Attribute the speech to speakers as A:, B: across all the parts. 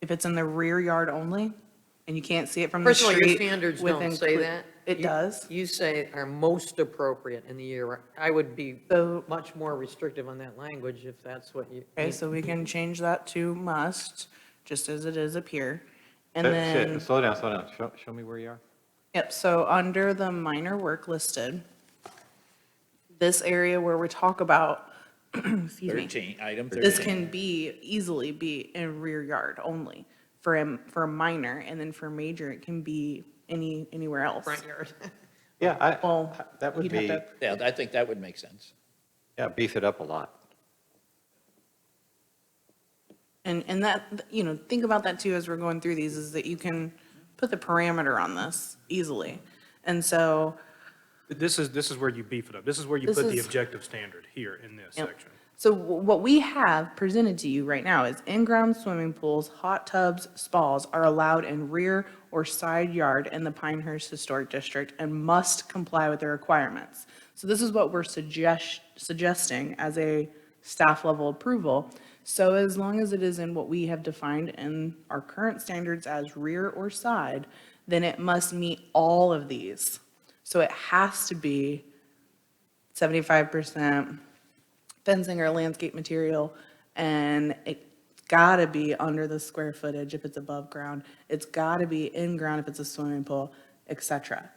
A: If it's in the rear yard only, and you can't see it from the
B: First of all,
A: street.
B: your standards
A: within
B: don't say
A: cle-
B: that.
A: It
B: You-
A: does.
B: You say are most appropriate in the year. I would be
A: So-
B: much more restrictive on that language if that's what you.
A: Okay, so we can change that to must, just as it is up here. And
C: Uh, shit,
A: then,
C: Slow down, slow down. Show, show me where you are.
A: yep, so under the minor work listed, this area where we talk about, excuse me.
D: 13, item 13.
A: This can be, easily be in rear yard only for a, for a minor, and then for major, it can be any, anywhere else.
B: Front yard.
C: Yeah,
A: Well,
C: I, that would
A: you'd have
C: be,
A: to-
D: Yeah, I think that would make sense.
C: yeah, beef it up a lot.
A: And, and that, you know, think about that too as we're going through these, is that you can put the parameter on this easily. And so,
E: This is, this is where you beef it up. This is where you
A: This
E: put the
A: is-
E: objective standard here in this
A: Yep.
E: section.
A: so wh- what we have presented to you right now is in-ground swimming pools, hot tubs, spas are allowed in rear or side yard in the Pinehurst Historic District and must comply with the requirements. So this is what we're suggest, suggesting as a staff level approval. So as long as it is in what we have defined in our current standards as rear or side, then it must meet all of these. So it has to be seventy-five percent fencing or landscape material, and it gotta be under the square footage if it's above ground. It's gotta be in ground if it's a swimming pool, et cetera.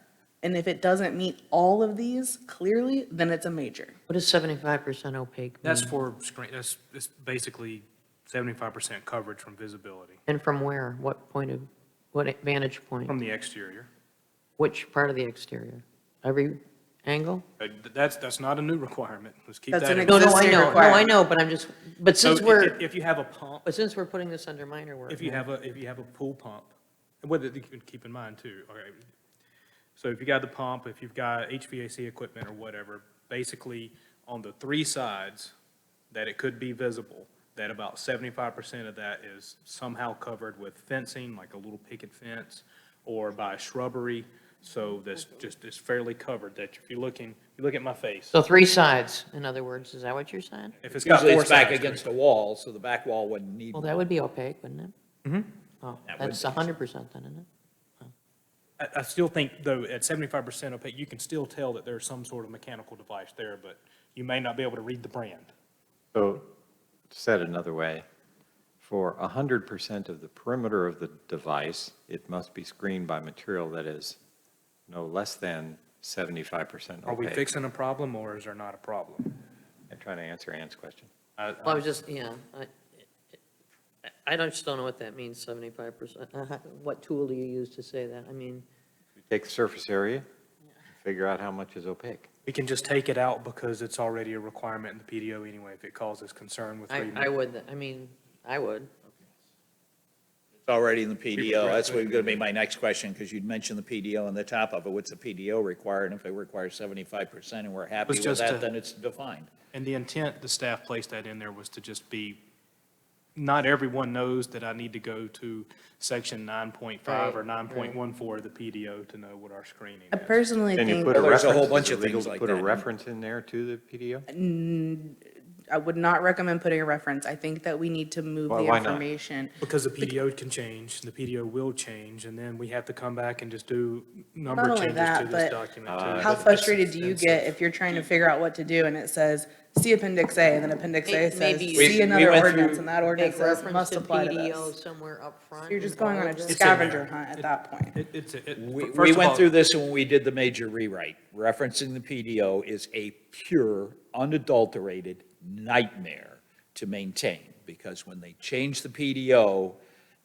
A: And if it doesn't meet all of these clearly, then it's a major.
B: What is 75% opaque?
E: That's for screen, that's, that's basically seventy-five percent coverage from visibility,
B: And from where? What point of, what vantage point?
E: from the exterior.
B: Which part of the exterior? Every angle?
E: Uh, th- That's, that's not a new requirement. Let's keep
A: That's
E: that
A: an
E: in.
A: ex-
B: No, no, I
A: Existing
B: know, no, I
A: requirement.
B: know, but I'm just, but
E: So
B: since
E: i-
B: we're,
E: If you have a pump,
B: but since we're putting this under minor work.
E: if you have a, if you have a pool pump, and whether, you can keep in mind too, okay. So if you got the pump, if you've got HVAC equipment or whatever, basically on the three sides that it could be visible, that about seventy-five percent of that is somehow covered with fencing, like a little picket fence, or by shrubbery, so that's just, it's fairly covered, that if you're looking, you look at my face,
B: So three sides, in other words, is that what you're saying?
E: if it's got
D: Usually
E: four
D: it's back
E: sides to it.
D: against the wall, so the back wall wouldn't need,
B: Well, that would be opaque, wouldn't it? Mm-hmm. Oh,
D: That would
B: that's
D: be.
B: 100% then, isn't it?
E: I, I still think, though, at seventy-five percent opaque, you can still tell that there's some sort of mechanical device there, but you may not be able to read the brand.
C: So said another way, for 100% of the perimeter of the device, it must be screened by material that is no less than 75%
E: Are we
C: opaque.
E: fixing a problem or is there not a problem?
C: I'm trying to answer Ann's question.
E: I-
B: Well, I was just, yeah, I- I, I don't- just don't know what that means, 75%. What tool do you use to say that? I mean,
C: Take the surface area, figure out how much is opaque.
E: We can just take it out because it's already a requirement in the PDO anyway, if it causes concern with
B: I,
E: reading.
B: I would, I mean, I would.
D: it's already in the PDO. That's what's going to be my next question, because you'd mentioned the PDO on the top of it. What's the PDO required? And if it requires 75% and we're happy
E: Was
D: with
E: just
D: that,
E: a-
D: then it's defined.
E: And the intent, the staff placed that in there was to just be, not everyone knows that I need to go to section nine point five or
B: Right,
E: nine
B: right.
E: point one four of the PDO to know what our screening
A: I
E: is.
A: personally
C: Can you
A: think,
C: put a
D: Well, there's
C: reference?
D: a whole bunch
C: is it
D: of
C: legal
D: things
C: to
D: like
C: Put a
D: that.
C: reference in there to the PDO?
A: I would not recommend putting a reference. I think that we need to move
C: Why-
A: the
C: why not?
A: information.
E: Because the PDO can change, the PDO will change, and then we have to come back and just do number
A: Not only
E: changes to
A: that,
E: this
A: but
C: Uh,
E: document. too.
A: How frustrated do you get if you're trying to figure out what to do and it says, see appendix A, and then appendix A says,
B: Maybe-
D: We-
A: see
D: we
A: another
D: went
A: ordinance,
D: through-
A: and that
B: Make
A: ordinance says
B: reference
A: must
B: to
A: apply to
B: PDO
A: this.
B: somewhere up front.
A: You're just
B: in
A: going
B: all
A: on a
B: of this.
E: It's in there.
A: scavenger hunt at that point.
E: It- It's, a- it-
D: We,
E: f-
D: we
E: first of
D: went
E: all,
D: through this when we did the major rewrite. Referencing the PDO is a pure, unadulterated nightmare to maintain, because when they change the PDO,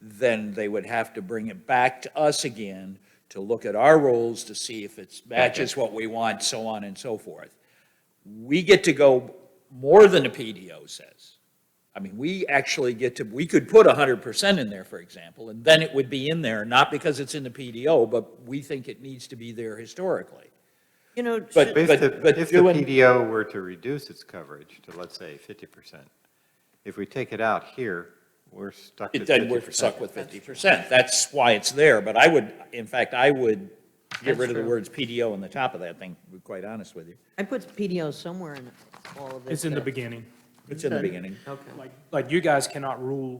D: then they would have to bring it back to us again to look at our rules to see if it matches what we want, so on and so forth. We get to go more than the PDO says. I mean, we actually get to, we could put 100% in there, for example, and then it would be in there, not because it's in the PDO, but we think it needs to be there historically.
B: You know,
D: But-
B: should-
C: If
D: but-
C: the,
D: but
C: if the
D: doing-
C: PDO were to reduce its coverage to, let's say, 50%, if we take it out here, we're stuck at 50%.
D: Then we're stuck with 50%. That's why it's there, but I would, in fact, I would get
B: That's
D: rid of the
B: true.
D: words PDO on the top of that thing, to be quite honest with you.
B: I put PDO somewhere in all of this.
E: It's in the
B: that-
E: beginning.
D: It's in the beginning.
B: Okay.
E: Like, like you guys cannot rule